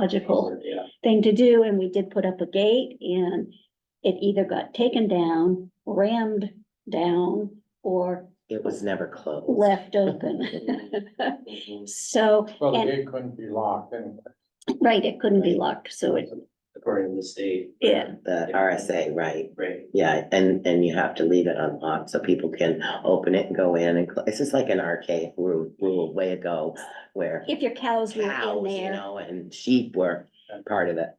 logical Yeah. thing to do, and we did put up a gate, and it either got taken down, rammed down, or It was never closed. left open. Mm-hmm. So, Well, the And- gate couldn't be locked and right, it couldn't be locked, so it, According to the state. Yeah. The RSA, right, Right. yeah, and, and you have to leave it unlocked so people can open it and go in and, cl- it's just like an archaic rule, rule way ago where if your cows were in cows, you there, know, and sheep were part of it.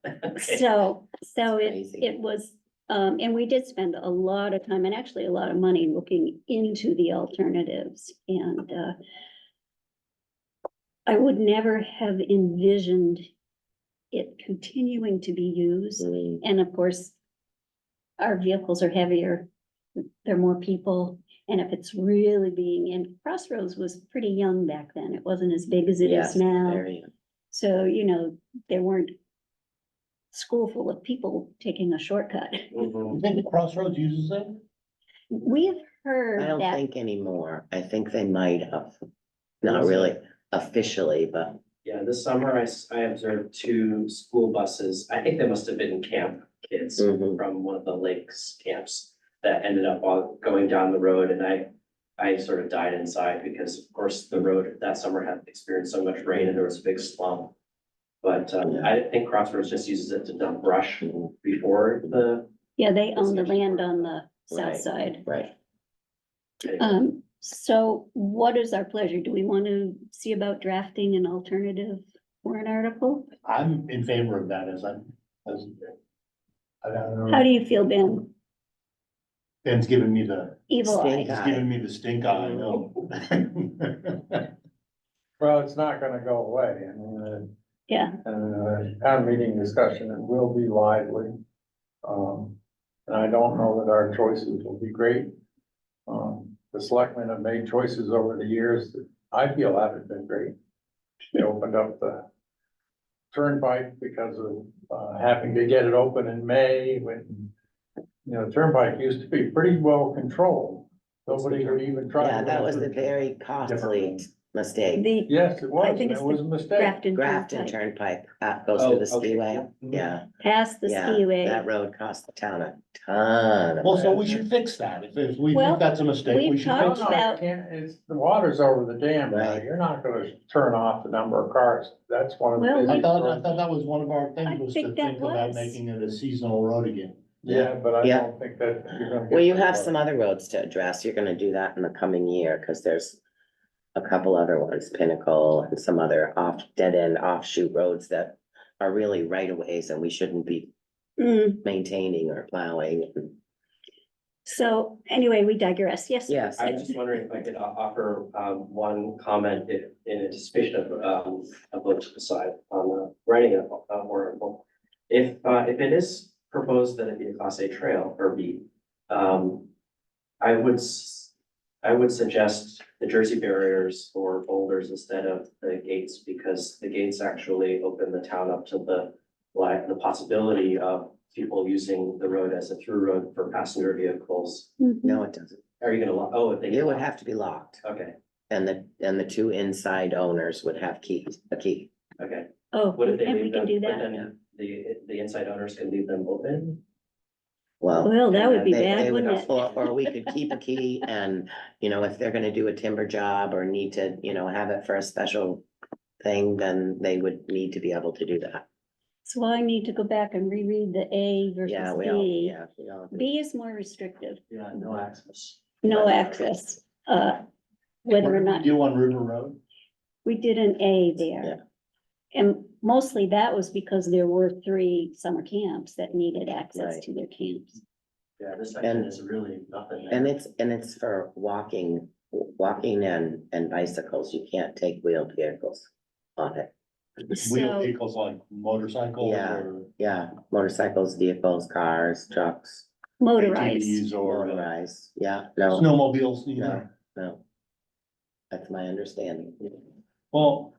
so, so it, It's crazy. it was, um, and we did spend a lot of time and actually a lot of money looking into the alternatives, and, uh, I would never have envisioned it continuing to be used. Mm, And of course, our vehicles are heavier, there are more people, and if it's really being, and Crossroads was pretty young back then, it wasn't as big as it Yes, is now. very- So, you know, there weren't school full of people taking a shortcut. Mm-hmm. you think the Crossroads uses it? We've I heard don't that, think anymore. I think they might have. Not Was it? really officially, but Yeah, this summer I, s- I observed two school buses. I think they must have been camp kids mhm, from one of the lakes camps that ended up all going down the road and I, I sort of died inside because of course the road that summer had experienced so much rain and there was a big slump. But um, I think Crossroads just uses it to dump brush mhm, before the. yeah, they own the It's actually- land on the south Right. side. right. Um, so what is our pleasure? Do we want to see about drafting an alternative warrant article? I'm in favor of that as I'm, as. I don't How know, do you feel, Ben? Ben's giving me the, Evil eye? Stink he's eye. giving me the stink eye, I know. Oh. Well, it's not gonna go away, I mean, Yeah. uh, uh, town meeting discussion, it will be lively. Um, and I don't know that our choices will be great. Um, the selectmen have made choices over the years that I feel haven't been great. They opened up the turnpike because of, uh, having to get it open in May when, you know, turnpike used to be pretty well controlled. Nobody would even try. to Yeah, that was enter. a very costly mistake. The Yes, it was, and think it's it the was a mistake. Grafton. Grafton Turnpike. Turnpike, that goes through the Oh, okay, skiway, yeah. yeah, Past the yeah. That skiway. road cost the town a ton. of Well, so money. we should fix that. If, if we Well, think that's a mistake, we we've should No, fix talked- it. no, about- it can't, it's, the water's over the dam now, Right. you're not gonna turn off the number of cars, that's one of the. Well, we- I biggest thought, I problems. thought that was one of our I things was to think that think about was. making it a seasonal road again. Yeah, but I Yeah. don't think that you're gonna. get Well, you that have far. some other roads to address, you're gonna do that in the coming year, because there's a couple other ones, Pinnacle and some other off, dead end offshoot roads that are really right of ways and we shouldn't be Mm, maintaining or plowing. So anyway, we digress. Yes. Yes, I was just wondering if I could o- offer um one comment in in anticipation of um a vote to decide on the writing of a warrant article. If uh if it is proposed that it be a class A trail or B, um I would s- I would suggest the Jersey barriers or boulders instead of the gates because the gates actually open the town up to the like the possibility of people using the road as a through road for passenger vehicles. Mhm. no, it doesn't. Are you gonna, lo- oh, if they. It would have to be locked Okay, and the, and the two inside owners would have keys, a key. okay. Oh, What if they and we leave can them, do but that. then the, the inside owners can leave them open? Well, Well, that would and be They- they bad, would- wouldn't it? Or, or we could keep a key and, you know, if they're gonna do a timber job or need to, you know, have it for a special thing, then they would need to be able to do that. So I need to go back and reread the A Yeah, versus we all, B. yeah. we all- B is more restrictive, Uh, Yeah, no access. no access, uh, whether What or did we not, Do on River Road? we did an A there. And mostly that was because there were three summer camps that needed access Right. to their camps. Yeah, this section And- is really nothing. there. And it's, and it's for walking, walking and, and bicycles. You can't take wheeled vehicles on it. Wheel So- vehicles like motorcycles Yeah. or Yeah, motorcycles, vehicles, cars, trucks, Motorized, ATVs or motorized, yeah, no, snowmobiles, you know. no. That's my understanding. Well,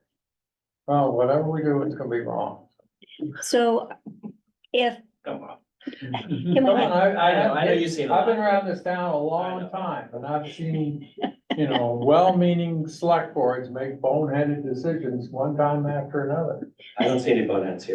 Well, whatever we do, it's gonna be wrong. so if Come on. Can Come we on, not- I, I I know, have, I know you've seen a I've been lot. around this town I a know. long time, and I've seen, you know, well-meaning select boards make boneheaded decisions one time after another. I don't see any boneheads here.